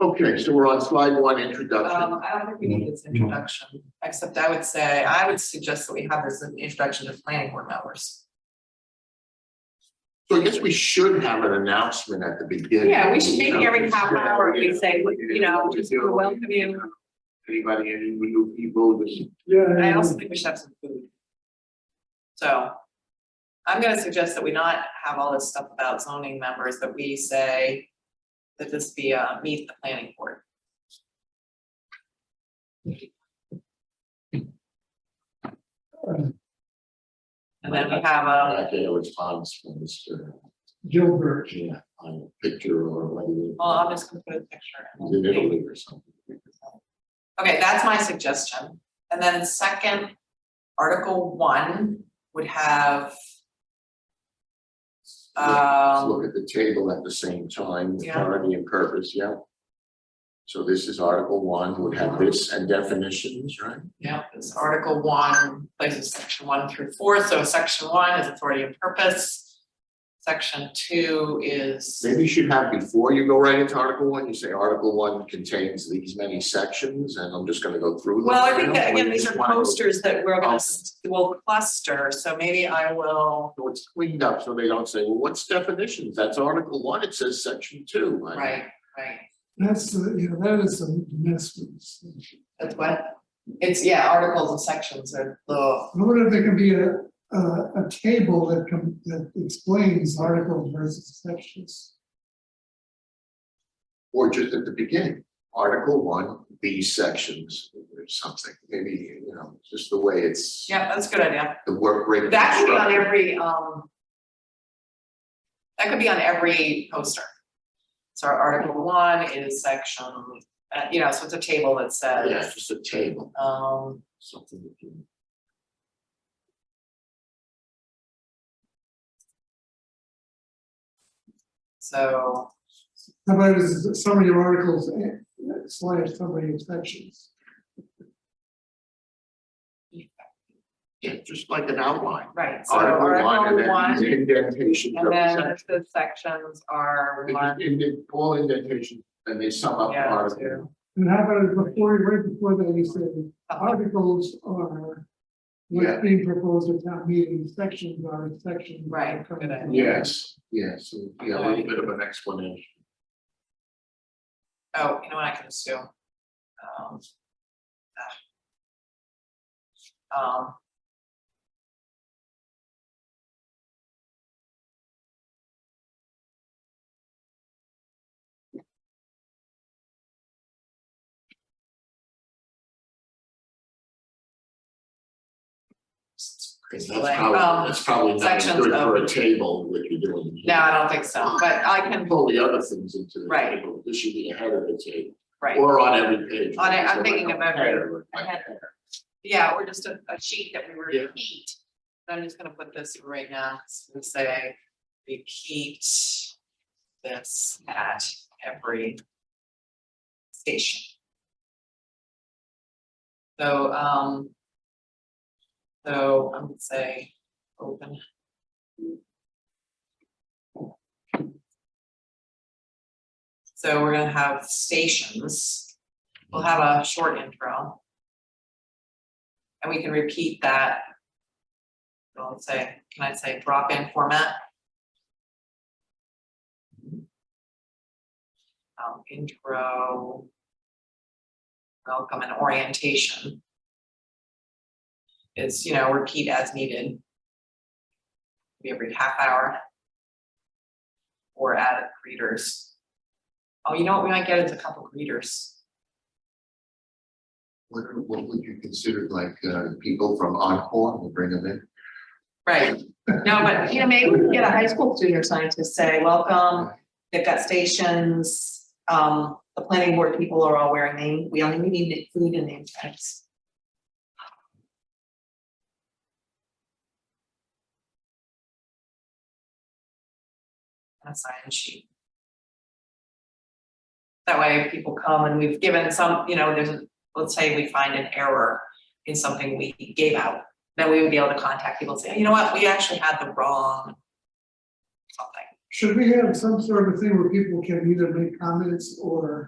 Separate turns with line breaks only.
Okay, so we're on slide one, introduction.
Um, I don't think we need this introduction, except I would say, I would suggest that we have this as an introduction to planning board members.
So I guess we should have an announcement at the beginning.
Yeah, we should
You
maybe
know,
every half
just, uh,
hour,
you
we
know,
say, you know,
what
just
you're
we
doing.
welcome you.
Anybody, any new people, just
I also think we should have some food. So. I'm gonna suggest that we not have all this stuff about zoning members, that we say. That this be a meet the planning board. And then we have a,
I get a response from Mr.
Gilbert,
Yeah, on a picture or whether.
uh,
well, I'm just gonna put a picture.
He's in Italy or something.
Okay, that's my suggestion. And then second, Article one would have.
Let's
Um,
Look at the table at the same time,
Yeah.
authority and purpose, yeah. So this is Article One, would have this and definitions, right?
yeah, it's Article one, places section one through four, so section one is authority and purpose. Section two is,
Maybe you should have, before you go right into Article One, you say Article One contains these many sections, and I'm just gonna go through them.
well, I think
now,
that
or
again,
you
these
just
are
wanna go- Oh,
posters that we're gonna, s- will cluster, so maybe I will,
So it's cleaned up, so they don't say, well, what's definitions? That's Article One, it says Section Two. I-
right, right.
that's, the you know, that is a mess. with this thing.
That's what, it's, yeah, articles and sections are the,
I wonder if there can be a, a, a table that can, that explains articles versus sections.
Or just at the beginning, Article One, these sections, or something, maybe, you know, just the way it's.
yeah, that's a good idea.
The work rate.
That could be on every, um. That could be on every poster. So our article one is section, uh, you know, so it's a table that
Yeah,
says,
just a table,
um,
something that you.
so.
How about as a summary of articles and slash summary of sections?
Yeah, just like an outline.
Right, so
Article one and
article
then
one,
these indentations of
and
the
then
section.
the sections are
They
one,
just indent- all indentations, and they sum up the
Yeah,
article.
And how about it before, right before that, you say articles are
Yeah.
what's being proposed at town meeting, sections are sections. that
Right,
come
good idea.
Yes, yes, so, yeah, a little bit of an explanation.
oh, you know what, I can assume. Um. ah. Um.
Cause
So like,
that's probably,
um,
that's probably not as
sections
good for a
of-
table, what you're doing. here.
No, I don't think so, but I
And
can,
Pull the other things into the
Right.
table, this should be ahead of the table,
right,
or on every page.
On it, I'm
So like
thinking
a
of every-
header, like
ahead.
that.
yeah, or just a, a sheet that we
Yeah.
repeat. I'm just gonna put this right now, it's gonna say, repeat this at every station. So, um, so I would say, open. So we're gonna have stations, we'll have a short intro. And we can repeat that. I'll say, can I say drop in format? Um, intro. Welcome and orientation. It's, you know, repeat as needed. Maybe Every half hour. Or add greeters. Oh, you know what we might get is a couple greeters.
What, what would you consider like, uh, people from Encore, will bring them in?
Right, no, but you know, maybe we can get a high school student or something to say, welcome, they've got stations. Um, the planning board people are all wearing name, we only need food and name tags. And A sign sheet. That way people come and we've given some, you know, there's, a- let's say we find an error in something we gave out then we would be able to contact people and say, you know what, we actually had the wrong something.
Should we have some sort of thing where people can either make comments or